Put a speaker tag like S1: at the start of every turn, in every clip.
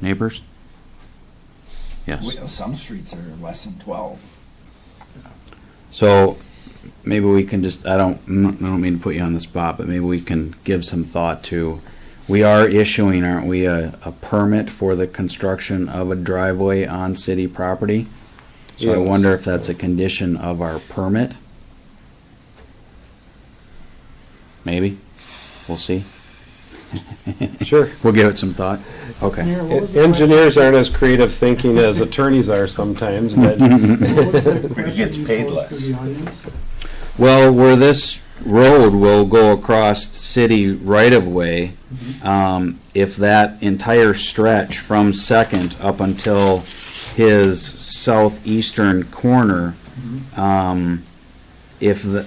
S1: neighbors? Yes.
S2: We- Some streets are less than twelve.
S1: So maybe we can just, I don't, I don't mean to put you on the spot, but maybe we can give some thought to, we are issuing, aren't we, a, a permit for the construction of a driveway on city property? So I
S3: Yes.
S1: wonder if that's a condition of our permit? Maybe, we'll see.
S3: Sure.
S1: We'll give it some thought, okay.
S4: Mayor, what was the question?
S3: Engineers aren't as creative thinking as attorneys are sometimes, but
S4: What was the
S2: But it gets
S4: question you
S2: paid
S4: posed
S2: less.
S4: To the audience?
S1: Well, where this road will go across city right of way, um, if that entire stretch from Second up until his southeastern corner, um, if the,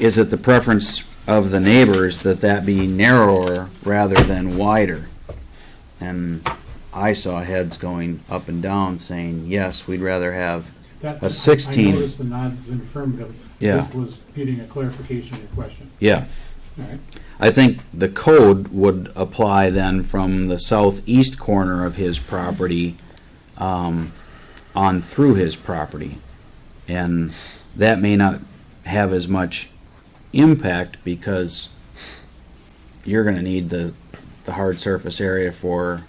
S1: is it the preference of the neighbors that that be narrower rather than wider? And I saw heads going up and down saying, yes, we'd rather have,
S4: That-
S1: A 16.
S4: I noticed the nods in affirmative.
S1: Yeah.
S4: This was getting a clarification of your question.
S1: yeah.
S4: All right.
S1: I think the code would apply then from the southeast corner of his property um, on through his property. And that may not have as much impact because you're gonna need the, the hard surface area for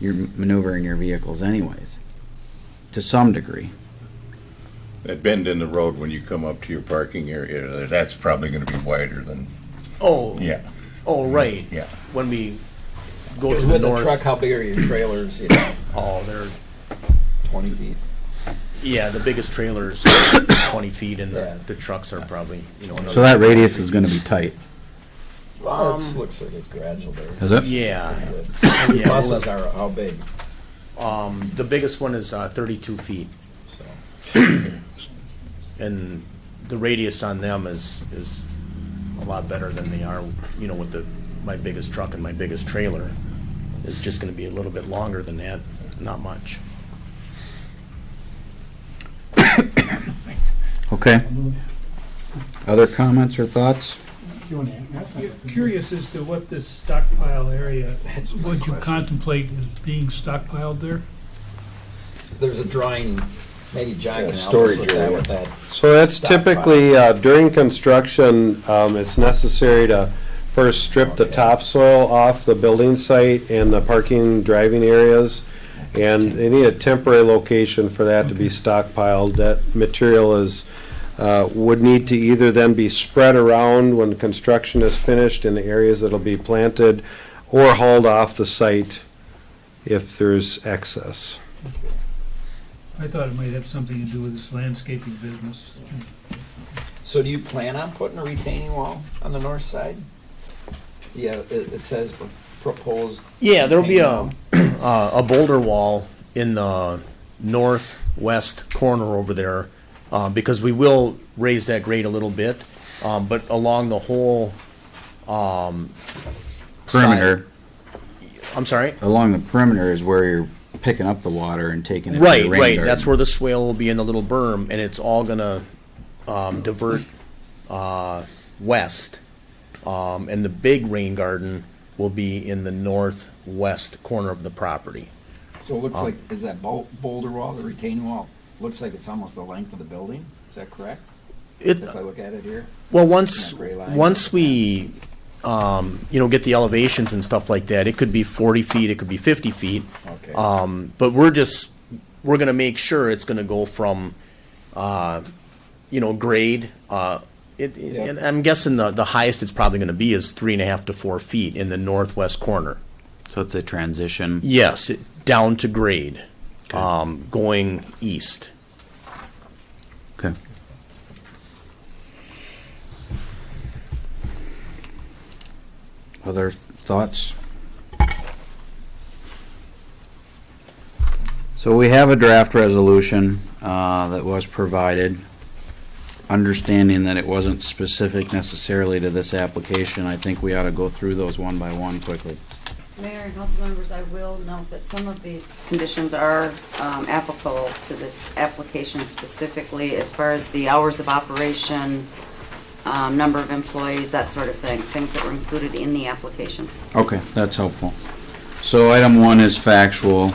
S1: your maneuvering your vehicles anyways, to some degree.
S5: That bend in the road when you come up to your parking area, that's probably gonna be wider than,
S6: Oh,
S5: yeah,
S6: oh, right.
S5: yeah.
S6: When we go to
S7: Because
S6: the
S7: with a truck,
S6: north,
S7: how big are your trailers? You know,
S6: oh, they're,
S7: twenty feet.
S6: yeah, the biggest trailer's twenty feet and
S7: Yeah.
S6: the, the trucks are probably, you know.
S1: So that radius is gonna be tight.
S7: Well, it looks like it's gradual there.
S1: Is it?
S6: Um, Yeah,
S7: And
S6: Yeah,
S7: your buses
S6: well,
S7: are how big?
S6: um, the biggest one is, uh, thirty-two feet
S7: So
S6: and the radius on them is, is a lot better than they are, you know, with the, my biggest truck and my biggest trailer. It's just gonna be a little bit longer than that, not much.
S1: Okay. Other comments or thoughts?
S4: Do you want to ask
S8: You're
S4: something?
S8: Curious as to what this stockpile area, would you contemplate as being stockpiled there?
S7: there's a drawing. Maybe John can help us
S3: storage
S7: with that.
S3: area.
S7: With that.
S3: So that's
S7: Stop by.
S3: typically, uh, during construction, um, it's necessary to first strip the topsoil off the building site and the parking driving areas. And they need a temporary location for that to be stockpiled. That material is, uh, would need to either then be spread around when construction is finished in the areas that'll be planted or hauled off the site if there's excess.
S8: I thought it might have something to do with this landscaping business.
S7: So do you plan on putting a retaining wall on the north side? Yeah, it, it says pr- proposed.
S6: Yeah, there'll be a,
S7: retaining
S6: uh, a boulder wall in the northwest corner over there, uh, because we will raise that grade a little bit, um, but along the whole, um.
S1: Perimeter.
S6: side- I'm sorry?
S1: along the perimeter is where you're picking up the water and taking it to
S6: Right,
S1: the rain
S6: right,
S1: garden.
S6: that's where the swale will be in the little berm, and it's all gonna, um, divert, uh, west. Um, and the big rain garden will be in the northwest corner of the property.
S2: So it looks
S6: Oh.
S2: like, is that bul- boulder wall, the retaining wall, looks like it's almost the length of the building? Is that correct?
S6: It,
S2: If I look at it here?
S6: Well, once,
S2: That gray line.
S6: once we, um, you know, get the elevations and stuff like that, it could be forty feet, it could be fifty feet.
S2: Okay.
S6: Um, but we're just, we're gonna make sure it's gonna go from, uh, you know, grade, uh, it,
S2: Yeah.
S6: and I'm guessing the, the highest it's probably gonna be is three and a half to four feet in the northwest corner.
S1: So it's a transition.
S6: Yes, it- down to grade,
S1: Okay.
S6: um, going east.
S1: Okay. Other thoughts? So we have a draft resolution uh, that was provided. Understanding that it wasn't specific necessarily to this application, I think we ought to go through those one by one quickly.
S9: Mayor and council members, I will note that some of these conditions are um, applicable to this application specifically as far as the hours of operation, um, number of employees, that sort of thing, things that were included in the application.
S1: Okay, that's helpful. So item one is factual.